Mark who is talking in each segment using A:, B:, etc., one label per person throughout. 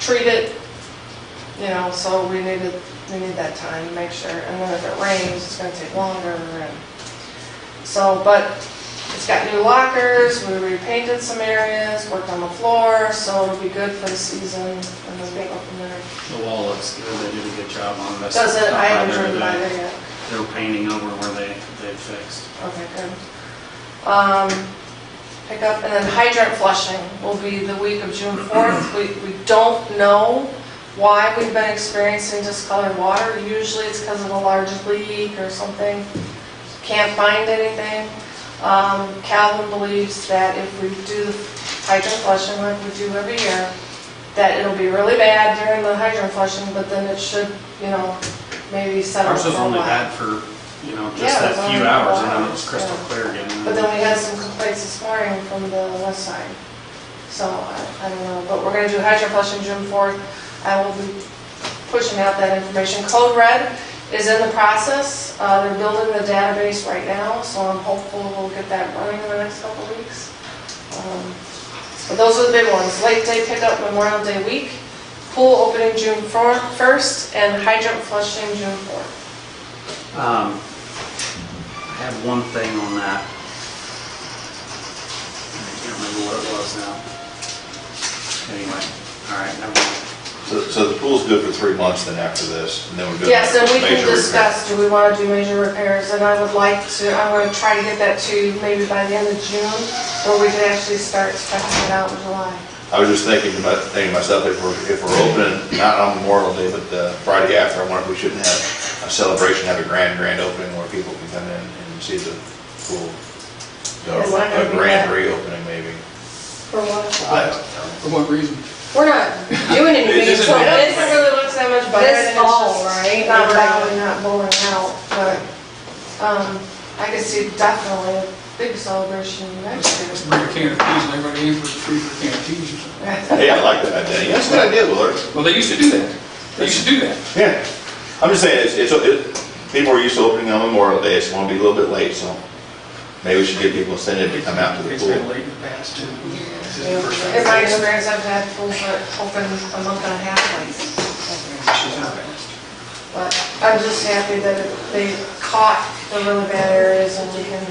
A: treat it, you know, so we needed, we need that time to make sure. And then if it rains, it's gonna take longer and, so, but it's got new lockers, we repainted some areas, worked on the floor, so it'll be good for the season and then we go from there.
B: The wall looks good, they did a good job on this.
A: Does it, I haven't
B: They're-
A: driven by there yet.
B: They're painting over where they, they fixed.
A: Okay, good. Um, pick up, and then hydrant flushing will be the week of June 4th. We, we don't know why we've been experiencing discolored water. Usually it's because of a large leak or something. Can't find anything. Um, Calvin believes that if we do the hydrant flushing like we do every year, that it'll be really bad during the hydrant flushing, but then it should, you know, maybe settle
B: Ours
A: for a
B: was only
A: while.
B: bad for, you know,
A: Yeah,
B: just that
A: it was
B: few
A: only
B: hours
A: four
B: and then it was
A: hours,
B: crystal
A: yeah.
B: clear again.
A: But then we had some complaints this morning from the west side. So I I don't know, but we're going to do hydrant flushing June 4th. I will be pushing out that information. Code Red is in the process. Uh, They're building the database right now, so I'm hopeful we'll get that running in the next couple of weeks. Um, But those are the big ones. Late day pickup Memorial Day week, pool opening June 4th 1st, and hydrant flushing June 4th.
B: Um, I have one thing on that. I can't remember what it was now. Anyway, all right, never mind.
C: So, so the pool's good for three months then after this, and then we're good.
A: Yes, and we can
C: major repair.
A: discuss, do we want to do major repairs? And I would like to, I want to try to get that to maybe by the end of June, where we can actually start stretching it out in July.
C: I was just thinking, about- thinking to myself, if we're, if we're opening, not on Memorial Day, but the Friday after, I wonder if we shouldn't have a celebration, have a grand, grand opening where people can come in and see the pool. Or
A: Is that gonna
C: A
A: be
C: grand
A: bad?
C: reopening maybe.
A: For what?
C: I don't know.
D: For what reason?
A: We're not doing anything,
D: It
A: it
D: isn't
A: doesn't
D: bad.
A: really look that much better.
E: This
A: and it's
E: fall,
A: just
E: right?
A: Not
E: Like-
A: really not blowing out, but, um, I could see definitely a big celebration next
D: Let's
A: year.
D: bring a can of peas and everybody in for the free for a can of peas or something.
C: Hey, I like that idea, that's a good idea, Willard.
D: Well, they used to do that. They used to do that.
C: Yeah, I'm just saying, it's, it's, it- people are used to opening on Memorial Day, it's gonna be a little bit late, so maybe we should give people incentive to come out to the
D: It's been
C: pool.
D: late in the past too. This is the first time.
A: In my experience, I've had pools that open a month and a half late.
D: She's not fast.
A: But I'm just happy that they caught the really bad areas and we can,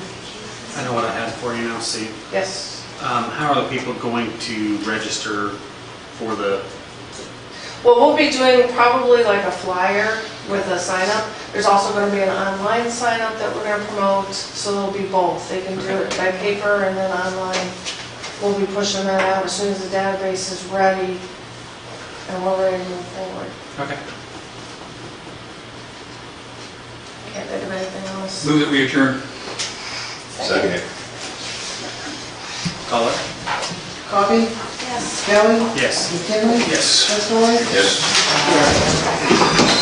B: I know what I had for you now, Steve.
A: yes.
B: Um, how are the people going to register for the,
A: Well, we'll be doing probably like a flyer with a sign up. There's also gonna be an online sign up that we're gonna promote, so it'll be both. They can do it by paper and then online. We'll be pushing that out as soon as the database is ready and we're ready to move forward.
B: okay,
A: Can't think of anything else.
D: Move that we adjourn.
C: Second.
B: call it?
F: Coffee?
E: Yes.
F: Kelly?
B: Yes.
F: McKinley?
D: Yes.
F: Westaway?
C: Yes.